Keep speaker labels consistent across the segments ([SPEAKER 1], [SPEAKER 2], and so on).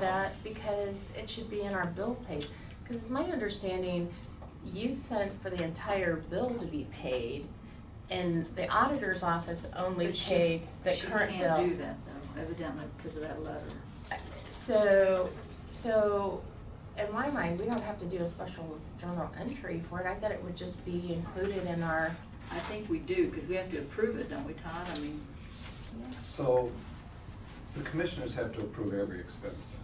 [SPEAKER 1] that because it should be in our bill page. Because it's my understanding, you sent for the entire bill to be paid and the auditor's office only
[SPEAKER 2] But she-
[SPEAKER 1] paid the current bill.
[SPEAKER 2] She can't do that though, evidently because of that letter.
[SPEAKER 1] So, so, in my mind, we don't have to do a special journal entry for it, I thought it would just be included in our,
[SPEAKER 2] I think we do, because we have to approve it, don't we, Todd? I mean,
[SPEAKER 3] So, the commissioners have to approve every expense,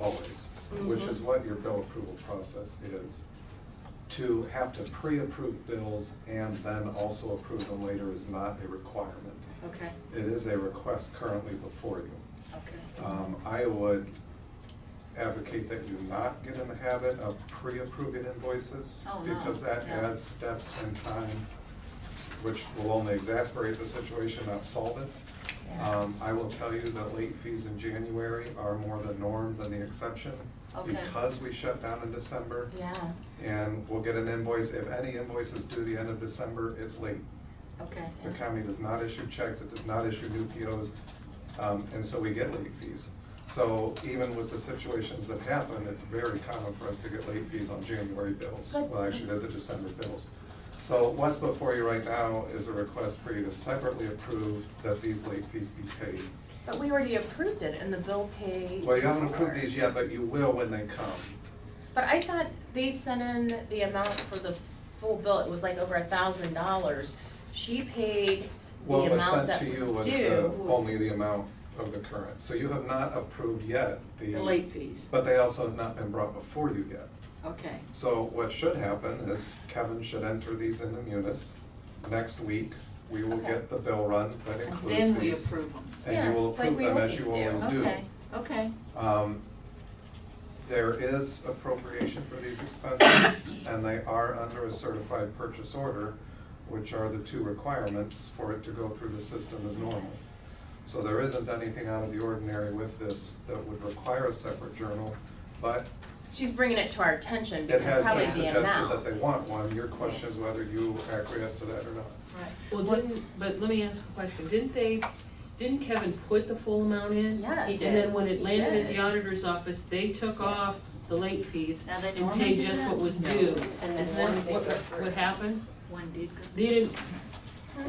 [SPEAKER 3] always,
[SPEAKER 2] Mm-hmm.
[SPEAKER 3] which is
[SPEAKER 1] Mhm.
[SPEAKER 3] what your bill approval process is. To have to pre-approve bills and then also approve them later is not a requirement.
[SPEAKER 2] okay,
[SPEAKER 3] It is a request currently before you.
[SPEAKER 2] okay.
[SPEAKER 3] Um, I would advocate that you not get in the habit of pre-approving invoices.
[SPEAKER 2] Oh, no,
[SPEAKER 3] Because that
[SPEAKER 2] yeah.
[SPEAKER 3] adds steps and time, which will only exasperate the situation, not solve it.
[SPEAKER 1] yeah.
[SPEAKER 3] Um, I will tell you that late fees in January are more the norm than the exception.
[SPEAKER 2] Okay.
[SPEAKER 3] Because we shut down in December,
[SPEAKER 1] Yeah,
[SPEAKER 3] and we'll get an invoice, if any invoice is due the end of December, it's late.
[SPEAKER 2] Okay,
[SPEAKER 3] The county does not issue checks, it does not issue new POs, um, and so we get late fees. So even with the situations that happen, it's very common for us to get late fees on January bills,
[SPEAKER 1] But-
[SPEAKER 3] well, actually, they're the December bills. So what's before you right now is a request for you to separately approve that these late fees be paid.
[SPEAKER 1] but we already approved it in the bill pay.
[SPEAKER 3] Well, you haven't
[SPEAKER 1] for-
[SPEAKER 3] approved these yet, but you will when they come.
[SPEAKER 1] But I thought they sent in the amount for the full bill, it was like over a thousand dollars. She paid the
[SPEAKER 3] What was
[SPEAKER 1] amount
[SPEAKER 3] sent
[SPEAKER 1] that
[SPEAKER 3] to you
[SPEAKER 1] was
[SPEAKER 3] was the,
[SPEAKER 1] due.
[SPEAKER 3] only the amount of the current. So you have not approved yet the.
[SPEAKER 2] the late fees,
[SPEAKER 3] But they also have not been brought before you yet.
[SPEAKER 2] okay,
[SPEAKER 3] So what should happen is Kevin should enter these in the munis. Next week, we will
[SPEAKER 1] Okay.
[SPEAKER 3] get the bill run that
[SPEAKER 2] and
[SPEAKER 3] includes these.
[SPEAKER 2] then we approve them.
[SPEAKER 3] And you will
[SPEAKER 1] Yeah, like
[SPEAKER 3] approve
[SPEAKER 1] we
[SPEAKER 3] them as you
[SPEAKER 1] always do.
[SPEAKER 3] always do.
[SPEAKER 2] Okay, okay,
[SPEAKER 3] Um, There is appropriation for these expenses, and they are under a certified purchase order, which are the two requirements for it to go through the system as normal. So there isn't anything out of the ordinary with this that would require a separate journal, but
[SPEAKER 1] She's bringing it to our attention
[SPEAKER 3] it
[SPEAKER 1] because
[SPEAKER 3] has
[SPEAKER 1] probably
[SPEAKER 3] been
[SPEAKER 1] the
[SPEAKER 3] suggested
[SPEAKER 1] amount.
[SPEAKER 3] that they want one. Your question is whether you acquiesce to that or not.
[SPEAKER 2] right.
[SPEAKER 4] Well, didn't, but let me ask a question, didn't they, didn't Kevin put the full amount in?
[SPEAKER 1] Yes. He
[SPEAKER 4] And
[SPEAKER 1] did.
[SPEAKER 4] then when it
[SPEAKER 2] He
[SPEAKER 4] landed at the
[SPEAKER 2] did.
[SPEAKER 4] auditor's office, they took off the late fees
[SPEAKER 2] Now, they
[SPEAKER 4] and
[SPEAKER 2] normally
[SPEAKER 4] paid
[SPEAKER 2] do
[SPEAKER 4] just
[SPEAKER 2] that?
[SPEAKER 4] what was
[SPEAKER 2] No.
[SPEAKER 4] due.
[SPEAKER 5] And then
[SPEAKER 4] Isn't that
[SPEAKER 5] one they
[SPEAKER 4] what,
[SPEAKER 5] go through.
[SPEAKER 4] what happened?
[SPEAKER 2] One did go.
[SPEAKER 4] They didn't,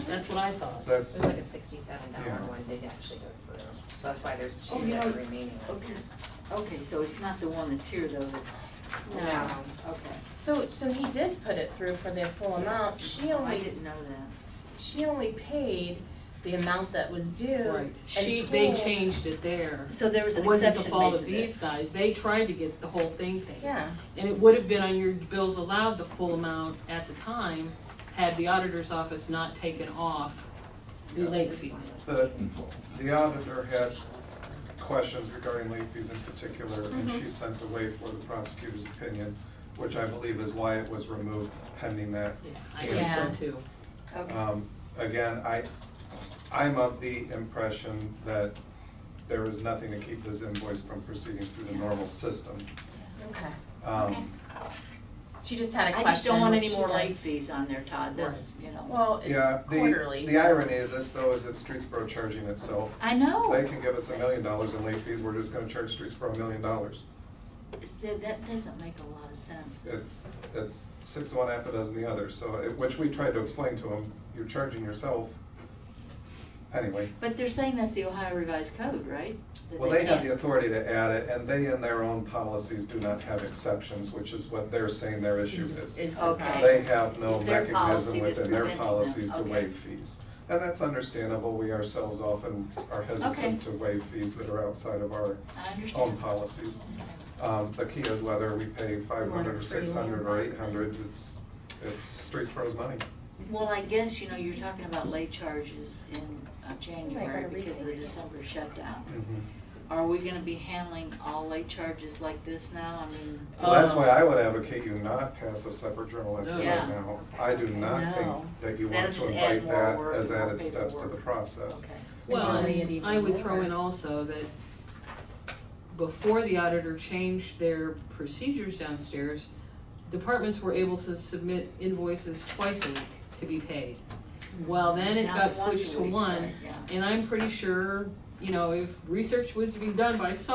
[SPEAKER 4] that's what I thought.
[SPEAKER 3] That's,
[SPEAKER 5] It was like a sixty-seven
[SPEAKER 3] Yeah.
[SPEAKER 5] dollar one did actually go through, so that's why there's
[SPEAKER 2] Oh,
[SPEAKER 5] two
[SPEAKER 2] yeah.
[SPEAKER 5] that are remaining.
[SPEAKER 2] Okay, s- okay, so it's not the one that's here though, that's.
[SPEAKER 1] No.
[SPEAKER 2] Okay.
[SPEAKER 1] So, so he did put it through for the full amount, she
[SPEAKER 2] Oh, I
[SPEAKER 1] only,
[SPEAKER 2] didn't know that.
[SPEAKER 1] she only paid the amount that was due. and
[SPEAKER 4] She, they
[SPEAKER 1] pulled-
[SPEAKER 4] changed it there.
[SPEAKER 2] So there was
[SPEAKER 4] It
[SPEAKER 2] an
[SPEAKER 4] wasn't the
[SPEAKER 2] exception
[SPEAKER 4] fault
[SPEAKER 2] made
[SPEAKER 4] of
[SPEAKER 2] to
[SPEAKER 4] these
[SPEAKER 2] this.
[SPEAKER 4] guys, they tried to get the whole thing paid.
[SPEAKER 1] Yeah,
[SPEAKER 4] And it would have been on your bills allowed the full amount at the time, had the auditor's office not taken off the
[SPEAKER 3] Yeah.
[SPEAKER 4] late fees.
[SPEAKER 3] the, the auditor had questions regarding late fees in particular, and
[SPEAKER 1] Mm-hmm.
[SPEAKER 3] she sent away for the prosecutor's opinion, which I believe is why it was removed pending that.
[SPEAKER 4] Yeah, I think so
[SPEAKER 1] Yeah.
[SPEAKER 4] too.
[SPEAKER 2] Okay,
[SPEAKER 3] Um, Again, I, I'm of the impression that there is nothing to keep this invoice from proceeding through the normal system.
[SPEAKER 1] okay.
[SPEAKER 3] Um,
[SPEAKER 2] Okay.
[SPEAKER 1] She just had a
[SPEAKER 2] I
[SPEAKER 1] question.
[SPEAKER 2] just don't want
[SPEAKER 1] which
[SPEAKER 2] any
[SPEAKER 1] she
[SPEAKER 2] more late
[SPEAKER 1] does.
[SPEAKER 2] fees on there, Todd, that's, you know.
[SPEAKER 1] Well,
[SPEAKER 3] Yeah,
[SPEAKER 1] it's
[SPEAKER 3] the,
[SPEAKER 1] quarterly.
[SPEAKER 3] the irony of this though is that Streetsboro charging itself.
[SPEAKER 2] I
[SPEAKER 3] They
[SPEAKER 1] Oh.
[SPEAKER 2] know,
[SPEAKER 3] can give us a million dollars in late fees, we're just gonna charge Streetsboro a million dollars.
[SPEAKER 2] It's- that, that doesn't make a lot of sense.
[SPEAKER 3] it's, it's six of one, half a dozen the other, so, it- which we tried to explain to them, you're charging yourself. Anyway,
[SPEAKER 2] But they're saying that's the Ohio Revised Code, right? That
[SPEAKER 3] well, they have
[SPEAKER 2] can't-
[SPEAKER 3] the authority to add it, and they in their own policies do not have exceptions, which is what they're saying their issue
[SPEAKER 1] Is,
[SPEAKER 3] is.
[SPEAKER 1] is the
[SPEAKER 2] Okay.
[SPEAKER 1] problem.
[SPEAKER 3] They have no
[SPEAKER 2] It's their
[SPEAKER 3] mechanism
[SPEAKER 2] policy that's
[SPEAKER 3] within their
[SPEAKER 2] preventing them.
[SPEAKER 3] policies to
[SPEAKER 2] Okay.
[SPEAKER 3] waive fees. And that's understandable, we ourselves often are
[SPEAKER 2] Okay.
[SPEAKER 3] hesitant to waive fees that are outside of our
[SPEAKER 2] I
[SPEAKER 3] own
[SPEAKER 2] understand.
[SPEAKER 3] policies. Um, the key is whether we pay five hundred or six hundred or eight hundred, it's, it's Streetsboro's money.
[SPEAKER 2] Well, I guess, you know, you're talking about late charges in uh, January
[SPEAKER 1] gotta
[SPEAKER 2] because of the
[SPEAKER 1] rethink it.
[SPEAKER 2] December shutdown. Are we gonna be handling all late charges like this now? I mean,
[SPEAKER 3] Well, that's
[SPEAKER 4] Um,
[SPEAKER 3] why I would advocate you not pass a separate journal entry right
[SPEAKER 2] Yeah.
[SPEAKER 3] now. I do
[SPEAKER 2] Okay.
[SPEAKER 3] not think
[SPEAKER 1] No.
[SPEAKER 3] that you
[SPEAKER 2] That'll
[SPEAKER 3] want to
[SPEAKER 2] just add
[SPEAKER 3] invite
[SPEAKER 2] more
[SPEAKER 3] that
[SPEAKER 2] work,
[SPEAKER 3] as
[SPEAKER 2] more
[SPEAKER 3] added steps to the
[SPEAKER 2] paperwork.
[SPEAKER 3] process.
[SPEAKER 2] okay,
[SPEAKER 4] Well,
[SPEAKER 1] Delay it
[SPEAKER 4] and
[SPEAKER 1] even
[SPEAKER 4] I would throw in
[SPEAKER 1] more.
[SPEAKER 4] also that before the auditor changed their procedures downstairs, departments were able to submit invoices twice a week to be paid. Well, then it
[SPEAKER 2] Now
[SPEAKER 4] got
[SPEAKER 2] it's once a
[SPEAKER 4] switched to
[SPEAKER 2] week,
[SPEAKER 4] one,
[SPEAKER 2] right, yeah.
[SPEAKER 4] and I'm pretty sure, you know, if research was to be done by someone.